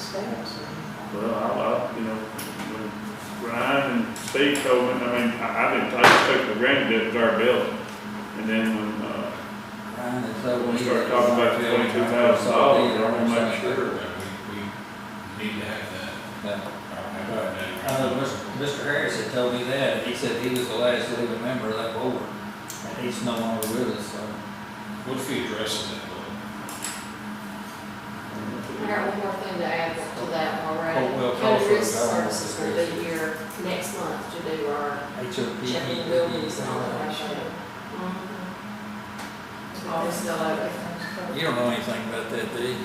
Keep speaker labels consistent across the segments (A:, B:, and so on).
A: steps.
B: Well, I, I, you know, when Ryan and Steve told me, I mean, I, I didn't take, take for granted that it was our building. And then when, uh,
A: Ryan, and so
B: when
A: when
B: we
A: he.
B: started talking about the twenty-two thousand dollars, I wanna make sure.
C: that we, we need to have that.
A: Uh, Mr. Mr. Harris had told me that, he said he was the last living member of that board, and he's no longer with us, so.
C: What if we address that, Lord?
D: I got one more thing to add to that already.
A: Oh, well, tell us
D: County Risk
A: about it.
D: Services will be here next month to do our
A: HOP.
D: checking buildings and all that shit. Mm-hmm. All this stuff like
A: You don't know anything about that, do you?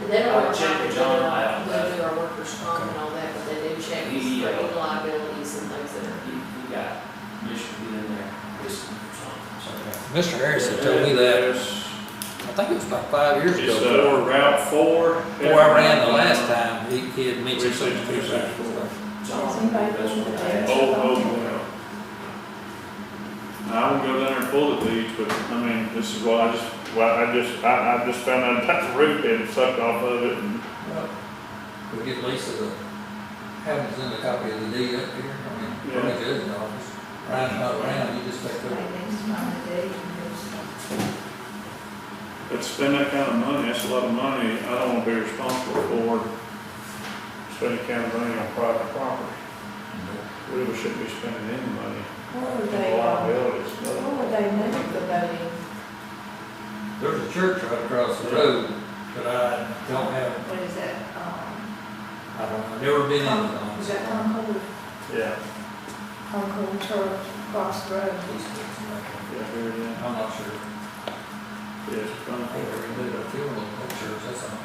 D: And they don't
E: I'll check with John about
D: They do our workers' comp and all that, but they do check us
E: He,
D: for
E: uh,
D: any liabilities and things that are.
E: You, you got Michigan in there, Michigan or something, so.
A: Mr. Harris had told me that,
B: It's,
A: I think it was about five years ago,
B: uh, Route Four.
A: before I ran the last time, he, he had mentioned
B: Three
A: something.
B: six two six four.
E: John,
F: anybody
E: that's
F: going
E: what
F: to
E: I had.
B: Oh, oh, wow. I won't go down there and pull the leaves, but I mean, this is what I just, well, I just, I, I just found out that's the root that sucked off of it and
A: Well, We get Lisa the, have us send a copy of the deed up here, I mean,
B: Yeah.
A: pretty good in the office. Ryan's not around, you just take the.
F: Right next to my day, and it's
B: But to spend that kind of money, that's a lot of money, I don't wanna be responsible for spending kind of money on private property. We really shouldn't be spending any money
F: What would they,
B: on
F: uh,
B: liabilities, but
F: what would they move the voting?
A: There's a church right across the road, but I don't have,
F: What is that, um,
A: I don't, I've never been in
F: Con- is
A: it.
F: that Concord,
B: yeah,
F: Concord Church across the road?
B: yeah, here it is.
A: I'm not sure.
B: Yes, it's
A: I
B: gonna
A: think
B: be-
A: they're in the funeral home church, that's all.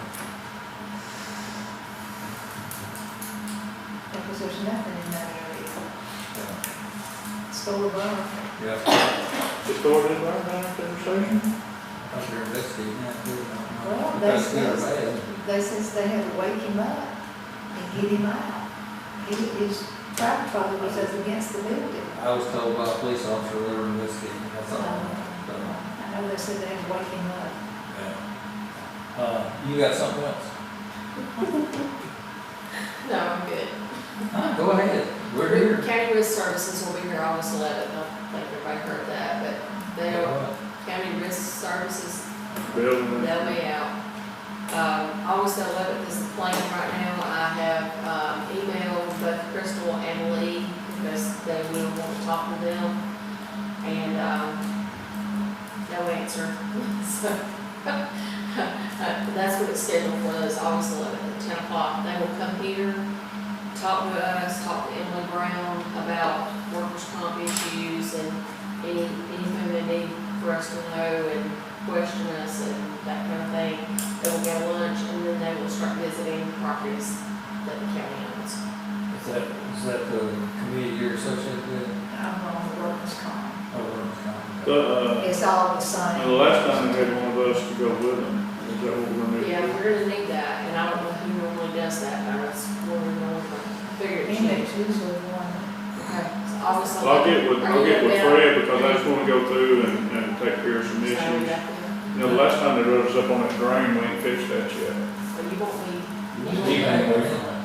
F: Because there's nothing in that area, it's full of love.
A: Yeah,
B: It's already right now, conversation?
A: I'm sure investigating that too. I don't know.
F: Well, they
A: That's good or
F: says,
A: bad.
F: they says they had to wake him up and get him out. He, his grandfather was up against the building.
A: I was told by a police officer they were investigating, that's
F: So,
A: all. So,
F: I know they said they had to wake him up.
A: yeah. Uh, you got something else?
D: No, I'm good.
A: Huh, Go ahead, we're here.
D: County Risk Services will be here August eleventh, I think everybody heard that, but they are, County Risk Services
B: Building.
D: They'll be out. Um, August eleventh is the plan right now. I have, um, emailed both Crystal and Lee because they will want to talk to them. And, um, no answer. So, that's what it's scheduled for, is August eleventh at ten o'clock. They will come here, talk to us, talk to Emily Brown about workers' comp issues and any, anything they need for us to know and question us and that kind of thing. They will get lunch and then they will start visiting properties that the county owns.
A: Is that, is that the committee you're associated with? Oh,
F: I'm on the workers' comp.
A: Over.
B: The, uh,
F: It's all the same.
B: the last time they had one of us to go with them, is that what we're gonna do?
D: Yeah, we're gonna need that, and I don't know who normally does that, but that's what we're going to figure it out.
F: Index usually one.
D: Okay, so obviously.
B: Well, I'll get with, I'll get with
D: Are you
B: Fred, because I just wanna go through and, and take care of some
D: available? Sorry,
B: issues.
D: Bethany.
B: You know, the last time they wrote us up on that drain, we ain't fixed that yet.
D: But you won't be,
A: You'll be back by then.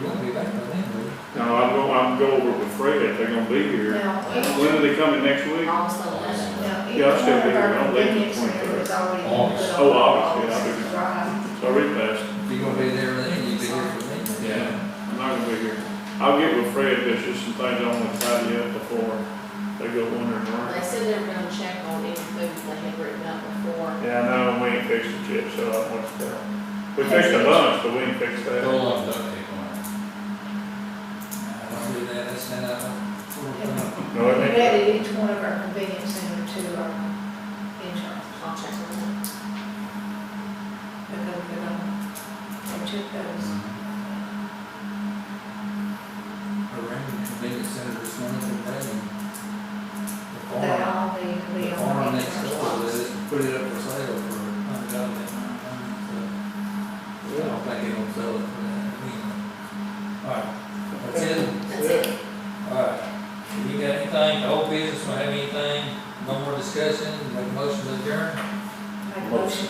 A: You'll be back by then, will you?
B: Now, I'm go, I'm go over with Fred, if they're gonna be here.
F: Now, each,
B: When are they coming next week?
D: almost eleven.
F: now, each
B: Yeah, I'll still
F: one
B: be
F: of
B: here.
F: our
B: I'll leave at
F: index
B: 23rd.
F: members already.
C: August.
B: Oh, August, yeah, I'll be-
F: Right.
B: It's already passed.
A: If you're gonna be there then, you'll be here for me. then.
B: I'm not gonna be here. I'll get with Fred, there's just some things I wanna tidy up before they go wandering
D: They
B: around.
D: said they were gonna check on any food they had written up before.
B: Yeah, I know, we ain't fixed it yet, so I want to, we fixed a bunch, but we ain't fixed that.
C: Roll off duct tape on it.
A: I don't do that, that's not, uh,
B: No, it
F: We
B: ain't.
F: added each one of our convenience center to our insurance,
D: I'll check on that.
F: because they don't, they took those.
A: around the convenience center this morning, they're paying. The
F: They
A: farm,
F: all need to
A: the
F: be
A: farm
F: on
A: next
F: insurance.
A: door, they just put it up for sale for a hundred dollars. so I don't think they gonna sell it for that, anyway. All right, that's it.
D: That's it.
A: Alright, you got anything, old business, don't have anything, no more discussion, make a motion to adjourn?
F: Make a motion